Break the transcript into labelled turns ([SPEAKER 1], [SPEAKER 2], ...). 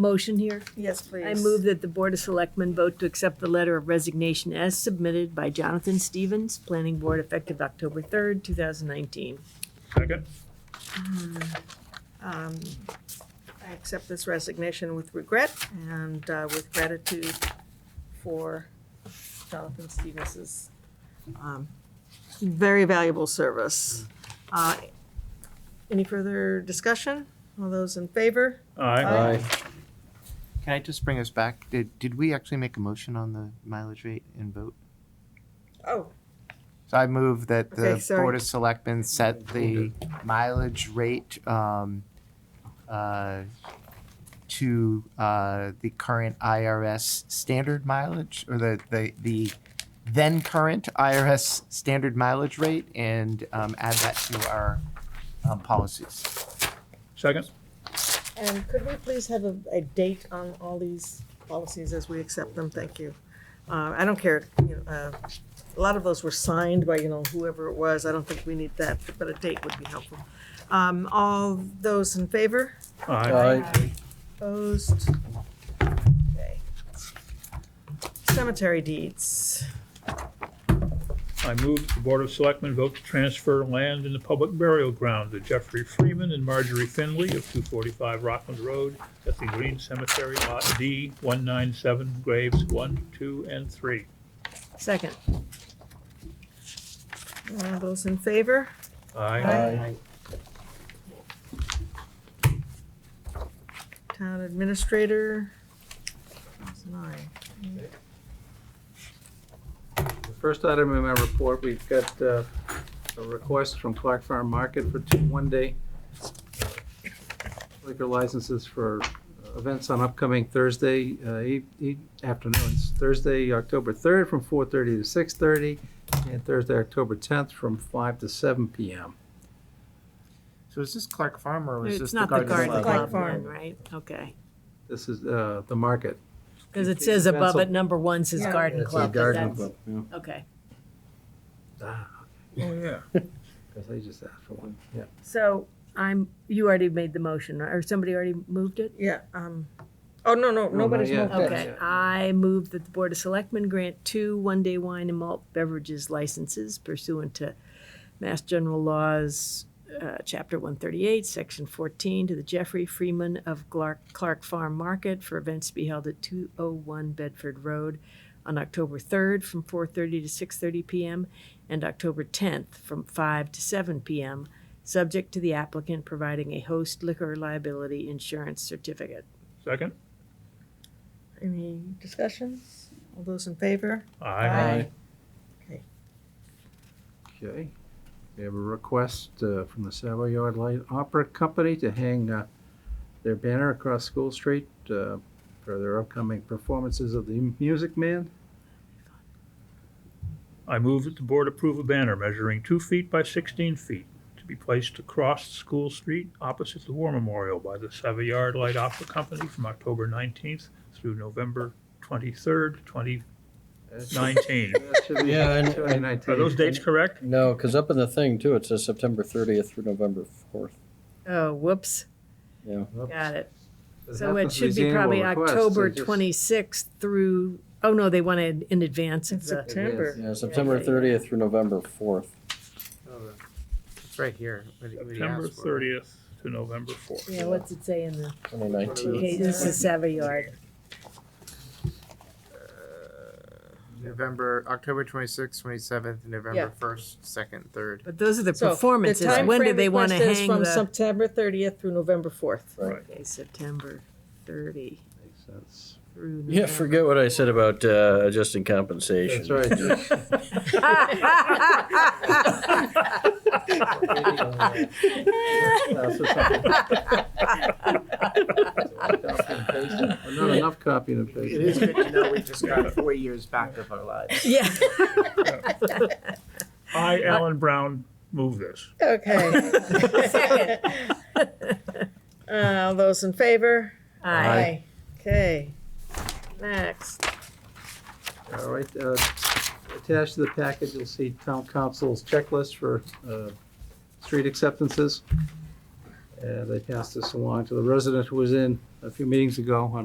[SPEAKER 1] motion here?
[SPEAKER 2] Yes, please.
[SPEAKER 1] I move that the Board of Selectmen vote to accept the letter of resignation as submitted by Jonathan Stevens, Planning Board, effective October 3rd, 2019.
[SPEAKER 3] Second?
[SPEAKER 2] Um, I accept this resignation with regret and uh, with gratitude for Jonathan Stevens's um, very valuable service. Uh, Any further discussion? All those in favor?
[SPEAKER 3] Aye.
[SPEAKER 2] Aye.
[SPEAKER 4] Can I just bring us back? Did, did we actually make a motion on the mileage rate and vote?
[SPEAKER 2] Oh,
[SPEAKER 4] So I move that
[SPEAKER 2] Okay,
[SPEAKER 4] the
[SPEAKER 2] sorry.
[SPEAKER 4] Board of Selectmen set the mileage rate um, uh, to uh, the current IRS standard mileage, or the, the, the then current IRS standard mileage rate, and um, add that to our um, policies.
[SPEAKER 3] Second?
[SPEAKER 2] And could we please have a, a date on all these policies as we accept them? Thank you. Uh, I don't care, you know, uh, a lot of those were signed by, you know, whoever it was. I don't think we need that, but a date would be helpful. Um, all those in favor?
[SPEAKER 3] Aye.
[SPEAKER 2] Opposed? Okay. Cemetery deeds.
[SPEAKER 3] I move that the Board of Selectmen vote to transfer land in the public burial ground to Jeffrey Freeman and Marjorie Finley of two forty-five Rockland Road at the Green Cemetery Lot D, one nine seven, graves one, two, and three.
[SPEAKER 1] Second.
[SPEAKER 2] All those in favor?
[SPEAKER 3] Aye.
[SPEAKER 2] Town administrator. That's nine.
[SPEAKER 5] First item in my report, we've got uh, a request from Clark Farm Market for two one-day liquor licenses for events on upcoming Thursday uh, e- e- afternoons. Thursday, October 3rd, from 4:30 to 6:30, and Thursday, October 10th, from 5 to 7 PM.
[SPEAKER 4] So is this Clark Farm or is this
[SPEAKER 1] It's
[SPEAKER 4] the
[SPEAKER 1] not the
[SPEAKER 4] Garden Club?
[SPEAKER 1] garden club,
[SPEAKER 2] Club. Farm.
[SPEAKER 1] right? Okay.
[SPEAKER 5] This is uh, the market.
[SPEAKER 1] Because it says above it, number one says
[SPEAKER 2] Yeah.
[SPEAKER 1] garden
[SPEAKER 5] It's a
[SPEAKER 1] club. but
[SPEAKER 5] garden
[SPEAKER 1] that's-
[SPEAKER 5] club,
[SPEAKER 1] Okay.
[SPEAKER 5] Ah,
[SPEAKER 3] Oh, yeah.
[SPEAKER 5] Because I just asked for one, yeah.
[SPEAKER 1] So I'm, you already made the motion, or somebody already moved it?
[SPEAKER 2] Yeah, um, oh, no, no,
[SPEAKER 5] not
[SPEAKER 2] nobody's
[SPEAKER 5] yet.
[SPEAKER 2] moved it.
[SPEAKER 1] Okay,
[SPEAKER 5] Yeah.
[SPEAKER 1] I move that the Board of Selectmen grant two one-day wine and malt beverages licenses pursuant to Mass General Laws, uh, Chapter 138, Section 14, to the Jeffrey Freeman of Clark, Clark Farm Market for events to be held at 201 Bedford Road on October 3rd from 4:30 to 6:30 p.m. and October 10th from 5 to 7 p.m., subject to the applicant providing a host liquor liability insurance certificate.
[SPEAKER 3] Second?
[SPEAKER 2] Any discussions? All those in favor?
[SPEAKER 3] Aye.
[SPEAKER 5] Okay. We have a request uh, from the Savoyard Light Opera Company to hang uh, their banner across School Street uh, for their upcoming performances of the Music Man.
[SPEAKER 3] I move that the board approve a banner measuring two feet by sixteen feet to be placed across School Street opposite the War Memorial by the Savoyard Light Opera Company from October nineteenth through November twenty-third, twenty
[SPEAKER 5] That should-
[SPEAKER 3] nineteen.
[SPEAKER 5] that should be
[SPEAKER 6] Yeah, and- and-
[SPEAKER 5] 2019.
[SPEAKER 3] Are those dates correct?
[SPEAKER 6] No, because up in the thing too, it says September thirtieth through November fourth.
[SPEAKER 1] Oh, whoops.
[SPEAKER 6] Yeah.
[SPEAKER 5] Oops.
[SPEAKER 1] Got it.
[SPEAKER 5] This
[SPEAKER 1] So it
[SPEAKER 5] happens to
[SPEAKER 1] should be
[SPEAKER 5] these annual
[SPEAKER 1] probably
[SPEAKER 5] requests. They
[SPEAKER 1] October
[SPEAKER 5] just-
[SPEAKER 1] 26th through, oh no, they want it in advance of
[SPEAKER 2] It's
[SPEAKER 1] the,
[SPEAKER 2] September.
[SPEAKER 6] Yeah, September
[SPEAKER 1] yeah.
[SPEAKER 6] thirtieth through November fourth.
[SPEAKER 5] Oh,
[SPEAKER 4] It's right here. What do you- what do you
[SPEAKER 3] September
[SPEAKER 4] ask for?
[SPEAKER 3] thirtieth to November fourth.
[SPEAKER 1] yeah, what's it say in the,
[SPEAKER 6] Twenty nineteen.
[SPEAKER 1] okay, this is Savoyard.
[SPEAKER 4] November, October twenty-sixth, twenty-seventh,
[SPEAKER 2] Yeah.
[SPEAKER 4] November first, second, third.
[SPEAKER 1] But those are the
[SPEAKER 2] So, the
[SPEAKER 1] performances, when do
[SPEAKER 2] timeframe
[SPEAKER 1] they want to
[SPEAKER 2] request is
[SPEAKER 1] hang
[SPEAKER 2] From
[SPEAKER 1] the?
[SPEAKER 2] September thirtieth through November fourth.
[SPEAKER 1] Okay, September 30
[SPEAKER 5] Makes sense.
[SPEAKER 1] through.
[SPEAKER 6] Yeah, forget what I said about uh, adjusting compensation.
[SPEAKER 5] That's right. Just- that's just something- Not enough copying and pasting.
[SPEAKER 7] It is good to know we just got four years back of our lives.
[SPEAKER 1] Yeah.
[SPEAKER 3] I, Alan Brown, move this.
[SPEAKER 2] Okay.
[SPEAKER 1] Second.
[SPEAKER 2] Uh, all those in favor?
[SPEAKER 1] Aye.
[SPEAKER 2] Okay, next.
[SPEAKER 5] All right, uh, attached to the package, you'll see town council's checklist for uh, street acceptances. And they passed this along to the resident who was in a few meetings ago on